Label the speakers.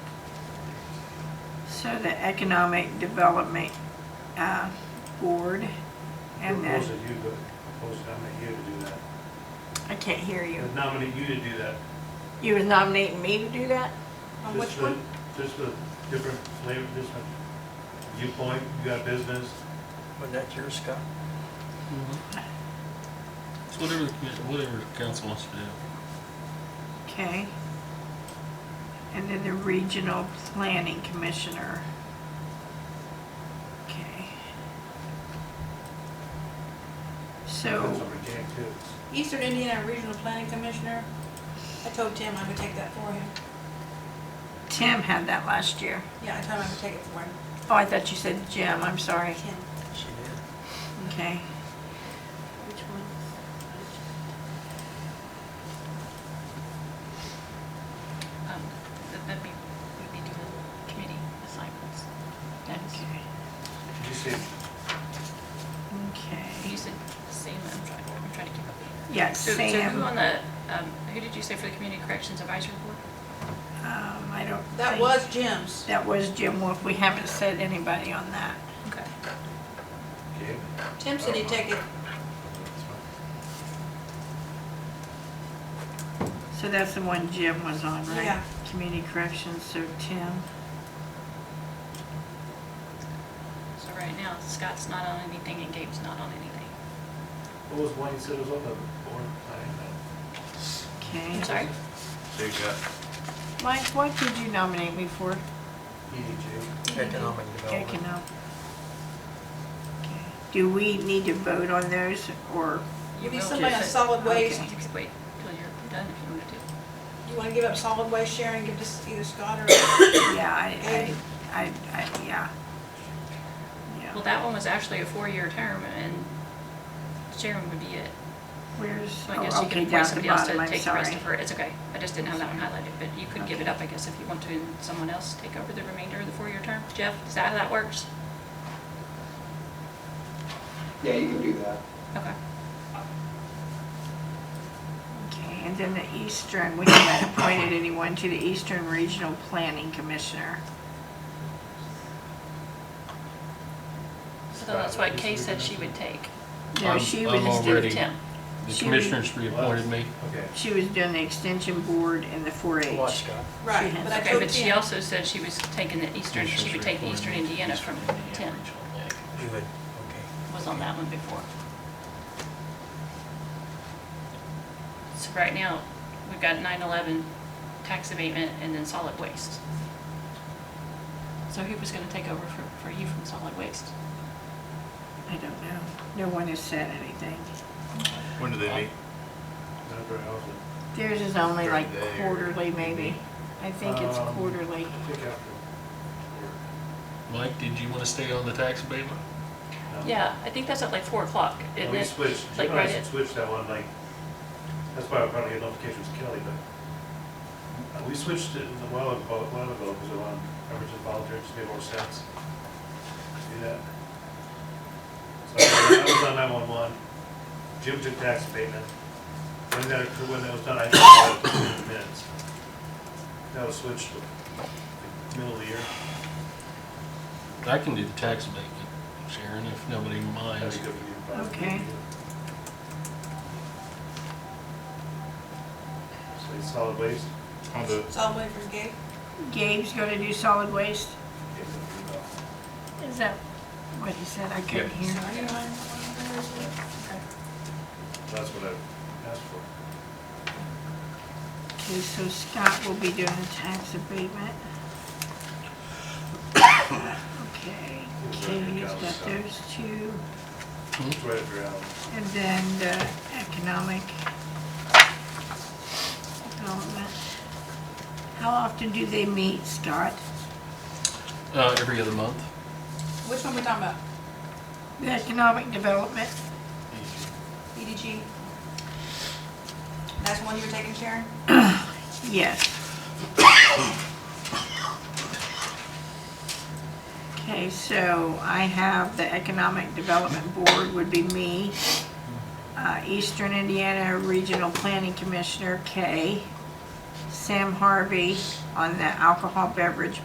Speaker 1: So the Economic Development uh, Board and
Speaker 2: Propose
Speaker 1: the,
Speaker 2: that you, go- propose to nominate you to do that.
Speaker 1: I can't hear you.
Speaker 2: And Nominate you to do that.
Speaker 1: You was nominating me to do that?
Speaker 3: On
Speaker 2: Just
Speaker 3: which
Speaker 2: the-
Speaker 3: one?
Speaker 2: Just the different flavor, just the viewpoint, you got business.
Speaker 4: Wasn't that yours, Scott?
Speaker 5: It's whatever the commi- whatever the council wants to do.
Speaker 1: Okay. And then the Regional Planning Commissioner. Okay.
Speaker 2: Depends
Speaker 1: So,
Speaker 2: on the gang too.
Speaker 3: Eastern Indiana Regional Planning Commissioner. I told Tim I would take that for him.
Speaker 1: Tim had that last year.
Speaker 3: Yeah, I told him I would take it for him.
Speaker 1: Oh, I thought you said Jim, I'm sorry.
Speaker 3: Tim.
Speaker 4: She did.
Speaker 1: Okay.
Speaker 3: Which one?
Speaker 6: Um, that- That'd be, would be doing committee assignments. That's,
Speaker 1: Okay.
Speaker 2: Did you say,
Speaker 6: you
Speaker 1: Okay.
Speaker 6: said Sam, I'm trying, I'm trying to keep up.
Speaker 1: Yeah,
Speaker 6: So, so who
Speaker 1: Sam.
Speaker 6: on the, um, who did you say for the Community Corrections Advisory Board?
Speaker 1: Um, I don't.
Speaker 3: That
Speaker 1: think-
Speaker 3: was Jim's.
Speaker 1: That was Jim Wolf. We haven't said anybody on that.
Speaker 6: Okay.
Speaker 2: okay?
Speaker 3: Tim said he'd take it.
Speaker 1: So that's the one Jim was on, right?
Speaker 3: Yeah.
Speaker 1: Community corrections, so Tim.
Speaker 6: So right now Scott's not on anything and Gabe's not on anything.
Speaker 2: What was one you said was on the board planning? uh,
Speaker 1: Okay.
Speaker 6: I'm sorry?
Speaker 2: So you got
Speaker 1: Mike, what did you nominate me for?
Speaker 2: E EDJ.
Speaker 4: Economic development.
Speaker 1: Economic. Do we need to vote on those or,
Speaker 6: You
Speaker 3: Maybe
Speaker 6: will
Speaker 3: somebody
Speaker 6: just-
Speaker 3: on solid waste.
Speaker 6: Okay, just Wait till you're done if you want to do. it.
Speaker 3: You want to give up solid waste share and give this to either Scott or
Speaker 1: yeah, I, I, I, I- yeah.
Speaker 6: Well,
Speaker 1: Yeah.
Speaker 6: that one was actually a four-year term and Sharon would be it.
Speaker 1: Where's,
Speaker 6: So I guess
Speaker 1: oh,
Speaker 6: you
Speaker 1: okay,
Speaker 6: could appoint
Speaker 1: down at the
Speaker 6: somebody else
Speaker 1: bottom,
Speaker 6: to
Speaker 1: I'm
Speaker 6: take the rest
Speaker 1: sorry.
Speaker 6: of her. It's okay. I just didn't have that one highlighted, but you could give it up, I guess, if you want to, and someone else take over the remainder of the four-year term. Jeff, is that how that works?
Speaker 7: Yeah, you can do that.
Speaker 6: Okay.
Speaker 1: Okay, and then the Eastern, we haven't appointed anyone to the Eastern Regional Planning Commissioner.
Speaker 6: So that's what Kay said she would take.
Speaker 1: No,
Speaker 5: I'm-
Speaker 1: she
Speaker 5: I'm
Speaker 1: was,
Speaker 5: already-
Speaker 6: Tim.
Speaker 5: The
Speaker 1: She
Speaker 5: commissioners reappointed me.
Speaker 2: Okay.
Speaker 1: she was doing the Extension Board and the
Speaker 4: Come on,
Speaker 1: 4-H.
Speaker 4: Scott.
Speaker 3: Right,
Speaker 1: has-
Speaker 3: but I
Speaker 6: Okay,
Speaker 3: told
Speaker 6: but she
Speaker 3: Tim.
Speaker 6: also said she was taking the Eastern, she would take Eastern Indiana from Tim,
Speaker 4: You would, okay.
Speaker 6: was on that one before. So right now, we've got 9/11 tax abatement and then solid waste. So who was gonna take over for, for you from solid waste?
Speaker 1: I don't know. No one has said anything.
Speaker 8: When do
Speaker 2: Uh,
Speaker 8: they meet?
Speaker 2: Not very often.
Speaker 1: Theirs is only
Speaker 8: During
Speaker 1: like
Speaker 8: the day or
Speaker 1: quarterly, maybe. I think it's
Speaker 2: Um,
Speaker 1: quarterly.
Speaker 2: I think after.
Speaker 5: Mike, did you want to stay on the tax abatement?
Speaker 2: work. No.
Speaker 6: Yeah, I think that's at like four o'clock,
Speaker 2: Well,
Speaker 6: isn't
Speaker 2: We
Speaker 6: it?
Speaker 2: Oh. switched, you
Speaker 6: like
Speaker 2: know, I
Speaker 6: right at-
Speaker 2: switched that one, like, that's why I probably had notifications Kelly, but uh, we switched it a while ago, a while ago, because it on Emergency Volunteer, it just made more sense to do that. So I was on nine-one-one, Jim took tax abatement, when that occurred, when that was done, I didn't know it was in the minutes. That was switched to middle of the year.
Speaker 5: I can do the tax abatement, Sharon, if nobody
Speaker 2: That'd
Speaker 5: minds.
Speaker 2: be good for you, probably.
Speaker 1: Okay.
Speaker 2: So it's solid waste.
Speaker 8: I'll do it.
Speaker 3: Solid waste for Gabe.
Speaker 1: Gabe's gonna do solid waste?
Speaker 2: Give them the, uh,
Speaker 1: Is that what he said? I couldn't hear.
Speaker 3: Sorry, I'm- I'm-
Speaker 2: That's what I asked for.
Speaker 1: Okay, so Scott will be doing the tax abatement. Okay, Katie's got those two,
Speaker 2: It's right after Alan.
Speaker 1: and then the economic development. How often do they meet, Scott?
Speaker 5: Uh, every other month.
Speaker 3: Which one we talking about?
Speaker 1: The economic development?
Speaker 3: EDG? E That's the one you were taking, Sharon?
Speaker 1: Yes. Okay, so I have the Economic Development Board would be me, uh, Eastern Indiana Regional Planning Commissioner, Kay, Sam Harvey on the Alcohol Beverage